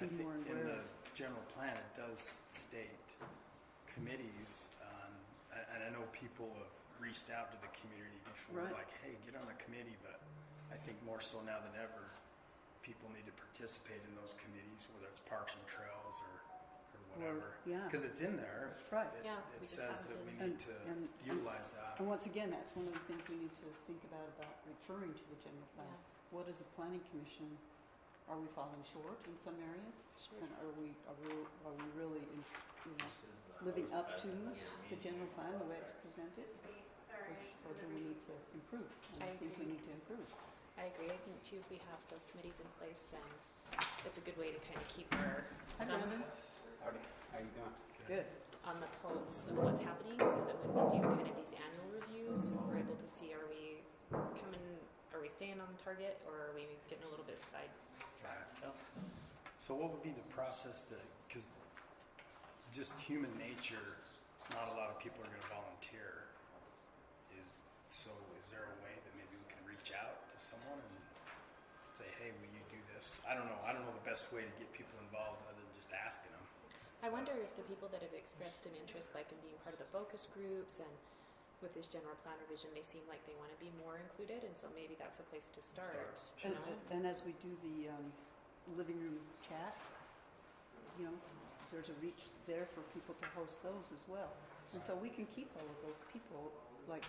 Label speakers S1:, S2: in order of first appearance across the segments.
S1: I
S2: be
S1: think
S2: more
S1: in the
S2: aware of.
S1: general plan, it does state committees, um, a- and I know people have reached out to the community before,
S2: Right.
S1: like, hey, get on a committee, but I think more so now than ever, people need to participate in those committees, whether it's Parks and Trails or, or whatever.
S2: yeah.
S1: Because it's in there.
S2: Right.
S1: It-
S3: Yeah, we
S1: It
S3: just
S1: says
S3: haven't
S1: that we
S3: been-
S1: need
S2: And-
S1: to
S2: and-
S1: utilize that.
S2: And once again, that's one of the things we need to think about, about referring to the general plan. What is a planning commission? Are we falling short in some areas?
S3: Sure.
S2: And are we, are we, are we really, in- you know, living up to the general plan, the way it's presented? Or sh- Or do we need to improve? And I
S3: I
S2: think we
S3: agree.
S2: need to improve.
S3: I agree. I think too, if we have those committees in place, then it's a good way to kind of keep her
S2: Hi,
S3: Um,
S2: Brandon.
S4: Howdy, how you doing?
S2: Good.
S3: on the pulse of what's happening, so that when we do kind of these annual reviews, we're able to see, are we coming, are we staying on target, or are we getting a little bit sidetracked, so.
S1: So what would be the process to, because just human nature, not a lot of people are gonna volunteer. Is, so is there a way that maybe we can reach out to someone and say, hey, will you do this? I don't know, I don't know the best way to get people involved other than just asking them.
S3: I wonder if the people that have expressed an interest, like in being part of the focus groups and with this general plan revision, they seem like they want to be more included, and so maybe that's a place to start,
S1: Start.
S2: And,
S3: you know?
S2: and as we do the, um, living room chat, you know, there's a reach there for people to host those as well. And so we can keep all of those people, like,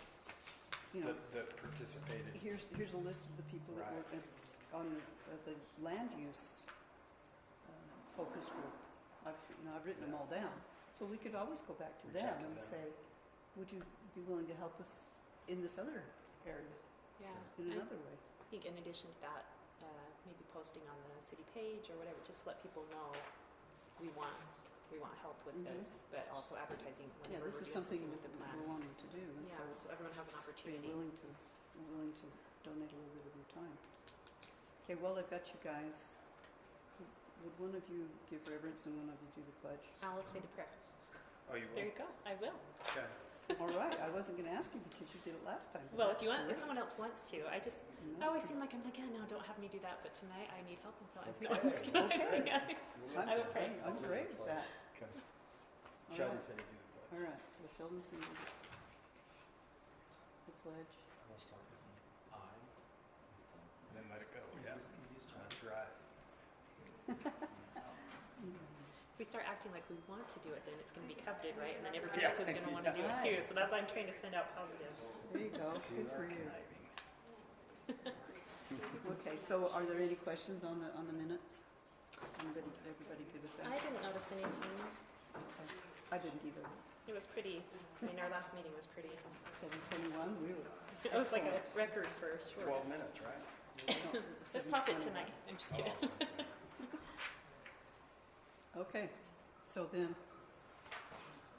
S2: you know,
S1: That, that participated,
S2: here's, here's a list of the people that were uh, on the, uh, the land use uh, focus group. I've, you know, I've written them all down. So we could always go back to
S1: Reach
S2: them
S1: out to
S2: and
S1: them.
S2: say, would you be willing to help us in this other area, in
S3: Yeah, I
S2: another way?
S3: think in addition to that, uh, maybe posting on the city page or whatever, just to let people know we want, we want help with
S2: Mhm.
S3: this, but also advertising
S2: Yeah,
S3: whenever we're
S2: this is
S3: doing
S2: something
S3: something with the plan.
S2: we're wanting to do, and
S3: Yeah,
S2: so
S3: so everyone has an
S2: be
S3: opportunity.
S2: willing to, willing to donate a little bit of your time. Okay, well, I've got you guys. Would one of you give reverence and one of you do the pledge?
S3: I'll say the prayer.
S1: oh, you
S3: There
S1: will?
S3: you go, I will.
S1: Okay.
S2: All right, I wasn't gonna ask you because you did it last time.
S3: Well, if you want, if
S2: That's
S3: someone else wants to, I just,
S2: great.
S3: I always seem like I'm like, yeah, no, don't have me do that, but tonight I need help, and so I'm, no,
S1: Okay.
S3: I'm just kidding.
S2: Okay.
S3: Yeah.
S2: No, I'm
S3: I will pray.
S2: great- I'm great with that.
S1: Okay.
S2: All
S1: Sheldon
S2: right.
S1: said he'd do the
S2: All
S1: pledge.
S2: right, so Sheldon's gonna do the pledge.
S4: I'll start with an I.
S1: Then let it go,
S4: Easiest-
S1: yeah.
S4: easiest one.
S1: That's right.
S3: If we start acting like we want to do it, then it's going to be coveted, right? And then everybody
S1: Yeah.
S3: else is going to want to do it too. So that's why I'm trying to send out positive.
S2: There you go,
S1: See,
S2: good
S1: we're
S2: for you.
S1: conniving.
S2: Okay, so are there any questions on the, on the minutes? Anybody, everybody good with
S3: I
S2: that?
S3: didn't notice anything.
S2: Okay. I didn't either.
S3: It was pretty. I mean, our last meeting was pretty.
S2: Seven twenty-one, we were
S3: It was like a record for sure.
S1: Twelve minutes, right?
S3: Let's pop it tonight. I'm just kidding.
S1: Oh, okay.
S2: Okay, so then,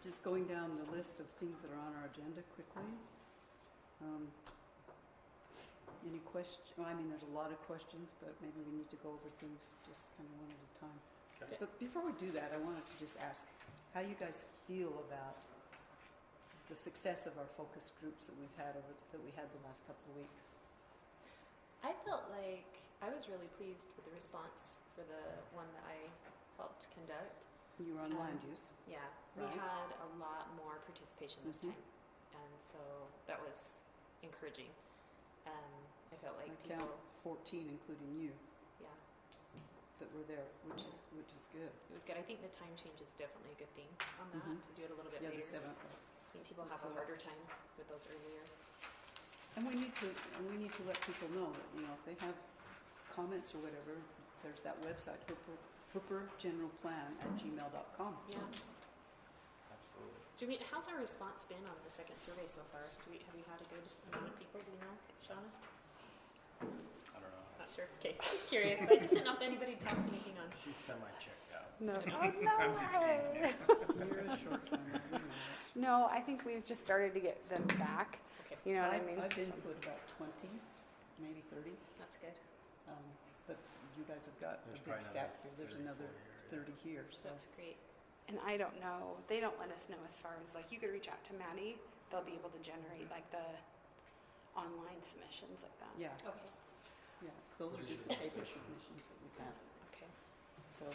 S2: just going down the list of things that are on our agenda quickly. Um, Any question, well, I mean, there's a lot of questions, but maybe we need to go over things just kind of one at a time.
S1: Okay.
S2: But before we do that, I wanted to just ask how you guys feel about the success of our focus groups that we've had over, that we had the last couple of weeks.
S3: I felt like I was really pleased with the response for the one that I helped conduct.
S2: You were on
S3: Um,
S2: land use.
S3: Yeah, Mm-hmm. we
S2: Right.
S3: had a lot more participation this
S2: Mhm.
S3: time, and so that was encouraging. Um, I felt
S2: I
S3: like people,
S2: count fourteen, including you,
S3: yeah,
S2: that were there, which is, which is good.
S3: it was good. I think the time change is definitely a good thing on that.
S2: Mhm.
S3: To do it a little bit
S2: Yeah, the
S3: later,
S2: seventh.
S3: I think people have a
S2: Absolutely.
S3: harder time with those earlier.
S2: And we need to, and we need to let people know that, you know, if they have comments or whatever, there's that website, Hooper, hoopergeneralplan at gmail.com.
S3: Yeah.
S1: Absolutely.
S3: Do we? How's our response been on the second survey so far? Do we have we had a good amount of people? Do you know, Shauna?
S1: I don't know.
S3: Not sure. Okay, just curious. I just didn't know if anybody passed anything on.
S1: She's semi-checked out.
S5: No.
S2: Oh,
S1: I'm just teasing you.
S2: You're a short time, you know that.
S5: No, I think we've just started to get them back.
S3: Okay.
S5: You know what I
S2: I've-
S5: mean?
S2: I've input about twenty, maybe thirty,
S3: That's good.
S2: um, but you guys have got
S1: There's
S2: a big
S1: probably
S2: stack,
S1: another 30, 40
S2: there's another thirty here, so.
S3: That's great.
S5: And I don't know, they don't let us know as far as, like, you could reach out to Maddie, they'll be able to generate, like, the online submissions like that.
S2: Yeah,
S3: Okay.
S2: yeah, those are just the paper submissions that we've had.
S3: Okay.
S2: so.